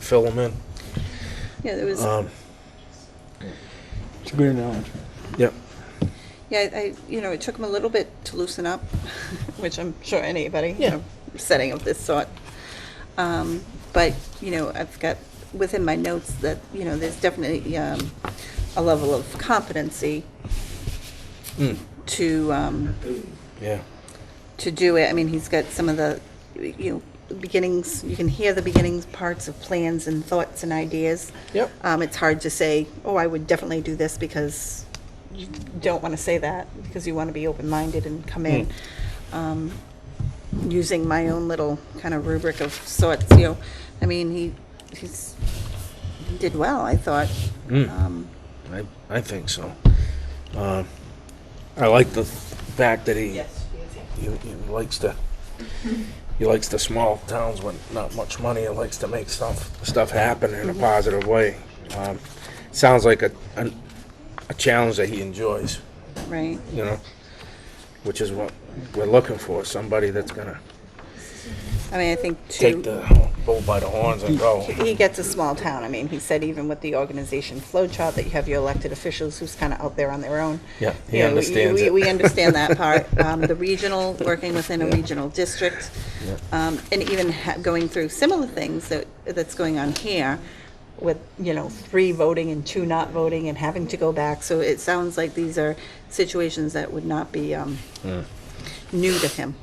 to fill them in. Yeah, there was, Um, It's a good analogy. Yep. yeah, I, you know, it took him a little bit to loosen up, which I'm sure anybody, you Yeah. know, setting of this sort. Um, But, you know, I've got within my notes that, you know, there's definitely um, a level of competency Mm, to, um, Yeah. to do it. I mean, he's got some of the, you know, beginnings, you can hear the beginnings parts of plans and thoughts and ideas. Yep. Um, it's hard to say, oh, I would definitely do this because you don't want to say that because you want to be open-minded and come in. Hmm. Um, using my own little kind of rubric of sorts, you know, I mean, he, he's, he did well, I thought. Mm. Um, I, I think so. Uh, I like the fact that he, he, he likes to, he likes the small towns with not much money and likes to make stuff, stuff happen in a positive way. Um, Sounds like a, an- a challenge that he enjoys, Right, you know, which is what we're looking for, somebody that's gonna I mean, I think too. take the bull by the horns and go. He gets a small town. I mean, he said even with the organization flow chart that you have your elected officials who's kind of out there on their own. Yeah, he You know, we- understands we- it. We understand that part. Um, The regional, working within a regional district, um, and even ha- going through similar things that, that's going on here with, you know, three voting and two not voting and having to go back. So it sounds like these are situations that would not be um, Hmm. new to him.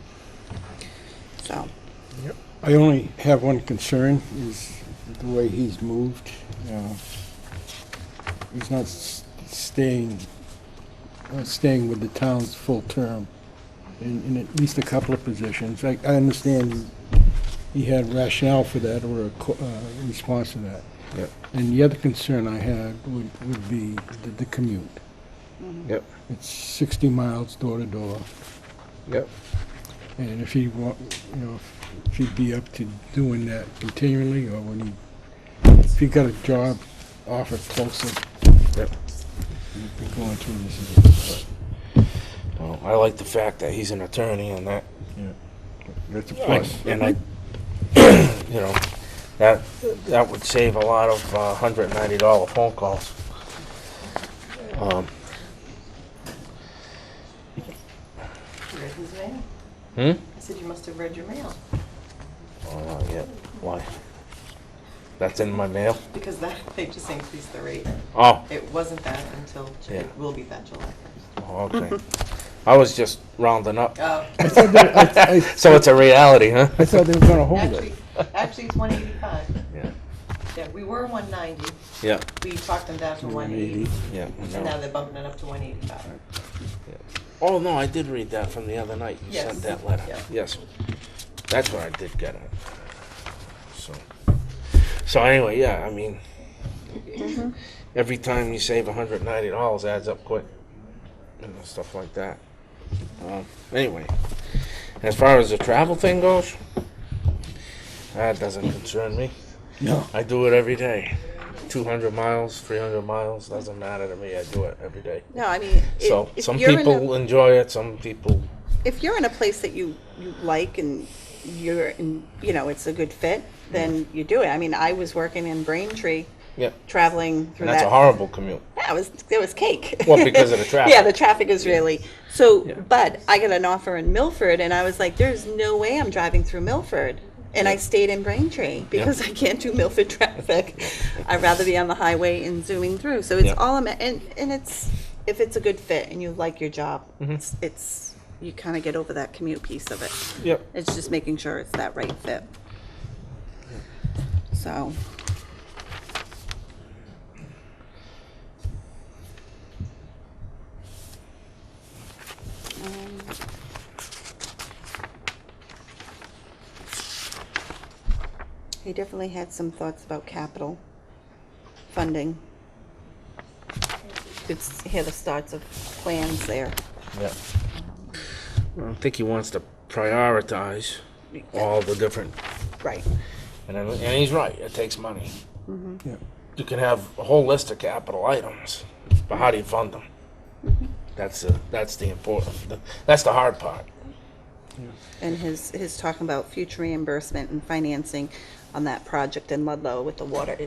So, I only have one concern, is the way he's moved. Uh, He's not s- staying, uh, staying with the town's full term in, in at least a couple of positions. I, I understand he had rationale for that or a co- uh, response to that. Yep. And the other concern I had would, would be the- the commute. Yep, It's 60 miles door to door. yep. And if he wa, you know, if he'd be up to doing that continually, or would he, if he got a job offer closer, Yep. he'd be going through this. Well, I like the fact that he's an attorney and that That's a I- And I, you know, that, that would save a lot of uh, hundred and ninety dollar phone calls. Um, read his mail. Hmm? I said, you must have read your mail, Oh, not yet. Why? That's in my mail? because that, they just increased the rate. Oh, It wasn't that until, Ju- Yeah. it will be that July oh, okay. I was just rounding up. 1st. So it's a reality, huh? I thought they were gonna hold it. Actually, actually it's 185. Yeah. Yeah, we were 190, Yeah, we talked them down to 180. 180, yeah. and now they're bumping it up to 185. Oh, no, I did read that from the other night. You sent Yes. that letter. Yeah. Yes. That's what I did get it. So, so anyway, yeah, I mean, Mm-hmm. every time you save hundred and ninety dollars adds up quick. And stuff like that. Um, anyway, as far as the travel thing goes, that doesn't concern me. No. I do it every day. Two hundred miles, three hundred miles, doesn't matter to me. I do it every day. no, I mean. i- So if some you're in a- people enjoy it, some people if you're in a place that you, you like and you're in, you know, it's a good fit, then Mm-hmm. you do it. I mean, I was working in Braintree, Yeah, traveling through and that's that. a horrible commute. yeah, it was it was cake. Well, because of the traffic. yeah, the traffic is really so. Yeah. But I got an offer in Milford, and I was like, "There's no way I'm driving through Milford." And I stayed in Braintree because I can't do Milford traffic. I'd rather be on the highway and zooming through. So it's Yeah. all I'm and and it's if it's a good fit and you like your job, Mm-hmm. it's, it's you kind of get over that commute piece of it. Yep. It's just making sure it's that right fit. So, Um, he definitely had some thoughts about capital funding. It's here the starts of plans there. Yeah. I think he wants to prioritize all the different, Right. and then- and he's right. It takes money. Yeah. You can have a whole list of capital items, but how do you fund them? Mm-hmm. That's the that's the important. That's the hard part. and his, his talking about future reimbursement and financing, on that project in Ludlow with the water